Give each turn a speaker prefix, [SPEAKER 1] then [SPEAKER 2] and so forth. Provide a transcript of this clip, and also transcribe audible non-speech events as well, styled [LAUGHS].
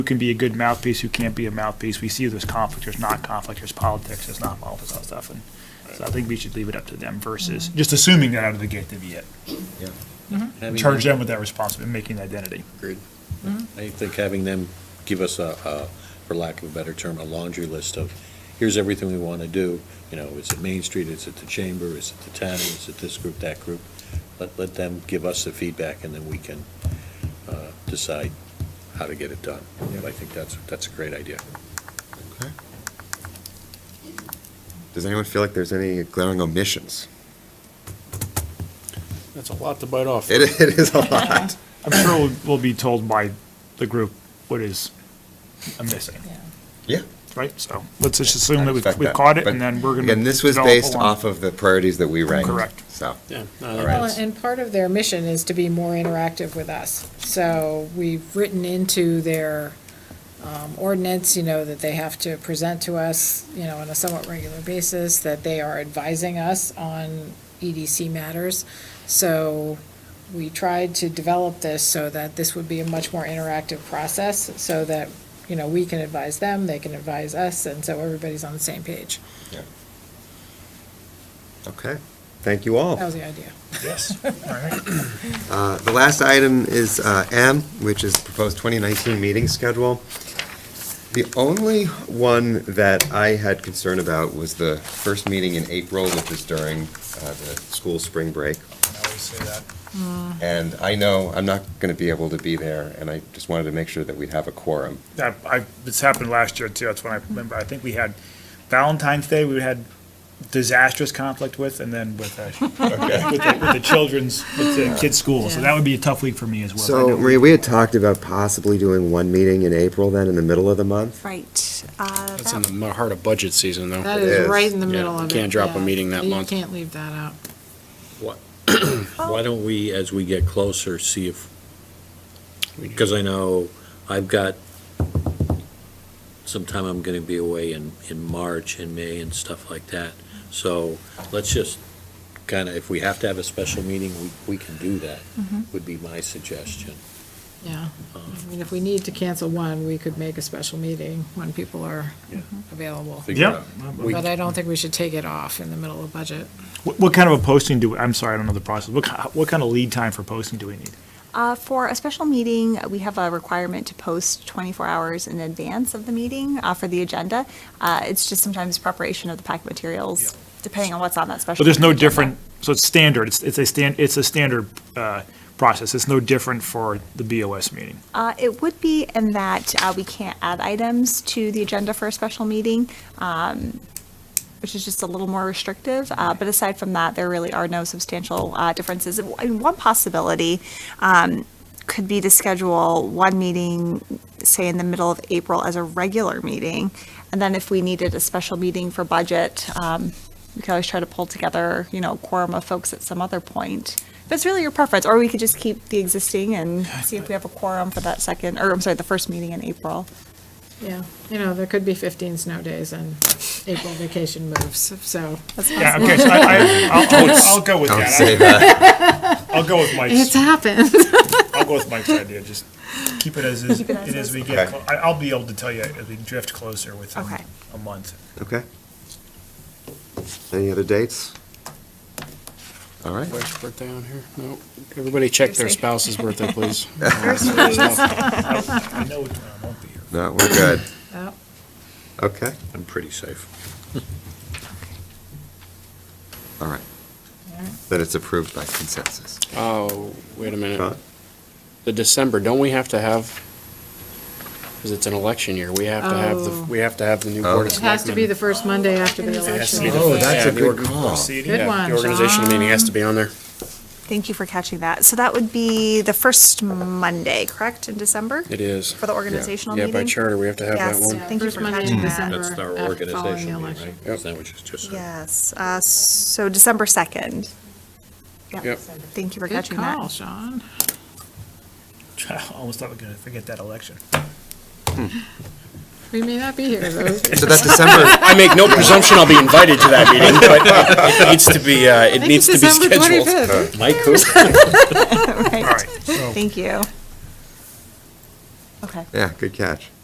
[SPEAKER 1] who can be a good mouthpiece, who can't be a mouthpiece. We see there's conflict, there's not conflict, there's politics, there's not politics, all that stuff. And so I think we should leave it up to them versus
[SPEAKER 2] Mm-hmm.
[SPEAKER 1] just assuming that out of the gate they'd be it.
[SPEAKER 3] Having
[SPEAKER 1] Charge
[SPEAKER 3] them-
[SPEAKER 1] them with that responsibility, making the identity.
[SPEAKER 3] Agreed. I think having them give us a, a, for lack of a better term, a laundry list of, here's everything we want to do. You know, is it Main Street, is it the Chamber, is it the town, is it this group, that group? Let, let them give us the feedback and then we can, uh, decide how to get it done. But I think that's, that's a great idea.
[SPEAKER 2] Okay. Does anyone feel like there's any glaring omissions? [LAUGHS]
[SPEAKER 4] That's a lot to bite off.
[SPEAKER 2] It, it is a lot.
[SPEAKER 1] I'm sure we'll, we'll be told by the group what is missing,
[SPEAKER 2] [LAUGHS] Yeah.
[SPEAKER 1] right? So let's just assume that
[SPEAKER 2] I
[SPEAKER 1] we've,
[SPEAKER 2] respect
[SPEAKER 1] we've
[SPEAKER 2] that.
[SPEAKER 1] caught it
[SPEAKER 2] But
[SPEAKER 1] and then we're gonna.
[SPEAKER 2] Again, this was
[SPEAKER 1] develop
[SPEAKER 2] based
[SPEAKER 1] along-
[SPEAKER 2] off of the priorities that we ranked.
[SPEAKER 1] Correct.
[SPEAKER 2] So,
[SPEAKER 4] Yeah.
[SPEAKER 2] all
[SPEAKER 4] no,
[SPEAKER 2] right.
[SPEAKER 5] Well, and part of their mission is to be more interactive with us. So we've written into their um, ordinance, you know, that they have to present to us, you know, on a somewhat regular basis, that they are advising us on EDC matters. So we tried to develop this so that this would be a much more interactive process, so that, you know, we can advise them, they can advise us, and so everybody's on the same page.
[SPEAKER 2] yeah. Okay. Thank you
[SPEAKER 4] Oh.
[SPEAKER 2] all.
[SPEAKER 5] That was the idea.
[SPEAKER 2] [LAUGHS]
[SPEAKER 1] Yes, all right.
[SPEAKER 2] Uh, The last item is uh, M, which is proposed 2019 meeting schedule. The only one that I had concern about was the first meeting in April, which is during uh, the school spring break.
[SPEAKER 1] I always say that.
[SPEAKER 2] And I know I'm not going to be able to be there, and I just wanted to make sure that we'd have a quorum.
[SPEAKER 1] That, I, this happened last year too, that's when I remember, I think we had Valentine's Day, we had disastrous conflict with, and then with, uh, with the with the children's, with the kids' school, so that would be a tough week for me as well. I
[SPEAKER 2] So,
[SPEAKER 1] know.
[SPEAKER 2] Maria, we had talked about possibly doing one meeting in April then, in the middle of the month.
[SPEAKER 6] Right. uh,
[SPEAKER 4] That's in
[SPEAKER 6] that-
[SPEAKER 4] the m- heart of budget season, though.
[SPEAKER 5] That
[SPEAKER 2] It
[SPEAKER 5] is
[SPEAKER 2] is.
[SPEAKER 5] right in the
[SPEAKER 4] Yeah,
[SPEAKER 5] middle
[SPEAKER 4] you
[SPEAKER 5] of it.
[SPEAKER 4] can't drop a
[SPEAKER 5] yeah.
[SPEAKER 4] meeting that month.
[SPEAKER 5] You can't leave that out.
[SPEAKER 3] Why don't we, as we get closer, see if, because I know I've got, sometime I'm gonna be away in, in March and May and stuff like that. So let's just kind of, if we have to have a special meeting, we, we can do that,
[SPEAKER 2] Mm-hmm.
[SPEAKER 3] would be my suggestion.
[SPEAKER 5] Yeah, I mean, if we need to cancel one, we could make a special meeting when people are available.
[SPEAKER 3] Figure
[SPEAKER 1] Yeah,
[SPEAKER 3] out-
[SPEAKER 1] what,
[SPEAKER 3] We-
[SPEAKER 5] But I don't think we should take it off in the middle of budget.
[SPEAKER 1] what kind of a posting do, I'm sorry, I don't know the process, what, ki- what kind of lead time for posting do we need?
[SPEAKER 6] uh, For a special meeting, we have a requirement to post 24 hours in advance of the meeting uh, for the agenda. Uh, It's just sometimes preparation of the packet materials, depending on what's on that special.
[SPEAKER 1] So there's no
[SPEAKER 6] meeting agenda.
[SPEAKER 1] different, so it's standard, it's, it's a stan, it's a standard, uh, process, it's no different for the BOS meeting.
[SPEAKER 6] Uh, It would be in that uh, we can't add items to the agenda for a special meeting, um, which is just a little more restrictive. Uh, But aside from that, there really are no substantial uh, differences. And One possibility um, could be to schedule one meeting, say, in the middle of April as a regular meeting. And then if we needed a special meeting for budget, um, we could always try to pull together, you know, a quorum of folks at some other point. But it's really your preference, or we could just keep the existing and see if we have a quorum for that second, or I'm sorry, the first meeting in April.
[SPEAKER 5] Yeah, you know, there could be 15 snow days and April vacation moves, so
[SPEAKER 1] Yeah, okay, so I, I, I'll, I'll- I'll go with
[SPEAKER 2] Don't
[SPEAKER 1] that,
[SPEAKER 2] say
[SPEAKER 1] I-
[SPEAKER 2] that.
[SPEAKER 1] I'll go with Mike's.
[SPEAKER 4] [LAUGHS]
[SPEAKER 5] it's happened.
[SPEAKER 1] I'll go with Mike's idea, just keep it as, is-
[SPEAKER 6] Keep it as
[SPEAKER 1] and as
[SPEAKER 6] is.
[SPEAKER 1] we get,
[SPEAKER 2] Okay.
[SPEAKER 1] clo- I- I'll be able to tell you as we drift closer within
[SPEAKER 6] Okay.
[SPEAKER 1] a month.
[SPEAKER 2] [LAUGHS] Okay. Any other dates? All right.
[SPEAKER 4] Wife's birthday on here? No. Everybody check their
[SPEAKER 6] Thursday.
[SPEAKER 4] spouse's birthday,
[SPEAKER 2] [LAUGHS]
[SPEAKER 4] please.
[SPEAKER 1] I know I won't be here.
[SPEAKER 2] No, we're good.
[SPEAKER 5] Oh,
[SPEAKER 2] Okay.
[SPEAKER 3] I'm pretty safe.
[SPEAKER 2] All right.
[SPEAKER 5] all right.
[SPEAKER 2] Then it's approved by consensus.
[SPEAKER 4] Oh, wait a
[SPEAKER 2] Huh?
[SPEAKER 4] minute. The December, don't we have to have, because it's an election year, we have to have, the
[SPEAKER 5] Oh.
[SPEAKER 4] we have to have the new
[SPEAKER 2] Oh.
[SPEAKER 4] board of
[SPEAKER 5] It has to be the
[SPEAKER 4] Selectmen.
[SPEAKER 5] first Monday after the
[SPEAKER 4] It has to be
[SPEAKER 5] election.
[SPEAKER 4] the
[SPEAKER 2] Oh,
[SPEAKER 4] first-
[SPEAKER 2] that's a
[SPEAKER 4] yeah, the
[SPEAKER 2] good
[SPEAKER 4] org-
[SPEAKER 2] call.
[SPEAKER 1] Proceeding?
[SPEAKER 5] Good
[SPEAKER 4] yeah,
[SPEAKER 5] one,
[SPEAKER 4] The organization meeting has to be on there.
[SPEAKER 6] Thank you for catching that. So that would be the first Monday, correct, in December?
[SPEAKER 4] It is.
[SPEAKER 6] For the organizational
[SPEAKER 4] Yeah,
[SPEAKER 6] meeting?
[SPEAKER 4] by charter, we have to have that
[SPEAKER 6] Yes,
[SPEAKER 4] one.
[SPEAKER 5] Yeah,
[SPEAKER 6] thank you
[SPEAKER 5] first
[SPEAKER 6] for
[SPEAKER 5] Monday in
[SPEAKER 6] catching that.
[SPEAKER 5] December.
[SPEAKER 3] That's our
[SPEAKER 5] after following the
[SPEAKER 3] organization meeting,
[SPEAKER 5] election.
[SPEAKER 3] right? Is that what you just said?
[SPEAKER 6] Yes, uh, so December 2nd.
[SPEAKER 4] Yep.
[SPEAKER 6] Thank you for
[SPEAKER 5] Good
[SPEAKER 6] catching
[SPEAKER 5] call,
[SPEAKER 6] that.
[SPEAKER 5] Sean.
[SPEAKER 1] [LAUGHS] I Almost thought we were gonna forget that election.
[SPEAKER 5] We may not be
[SPEAKER 4] [LAUGHS]
[SPEAKER 5] here, though.
[SPEAKER 2] So that December,
[SPEAKER 4] I make no presumption I'll be invited to that meeting, but it needs to be, uh, it
[SPEAKER 5] I think
[SPEAKER 4] needs to
[SPEAKER 5] it's
[SPEAKER 4] be
[SPEAKER 5] December
[SPEAKER 4] scheduled.
[SPEAKER 5] 25th.
[SPEAKER 3] Mike, who?
[SPEAKER 1] All
[SPEAKER 4] Oh.
[SPEAKER 6] Right.
[SPEAKER 1] right, so
[SPEAKER 6] Thank you.
[SPEAKER 7] Okay.
[SPEAKER 6] Yeah, good catch.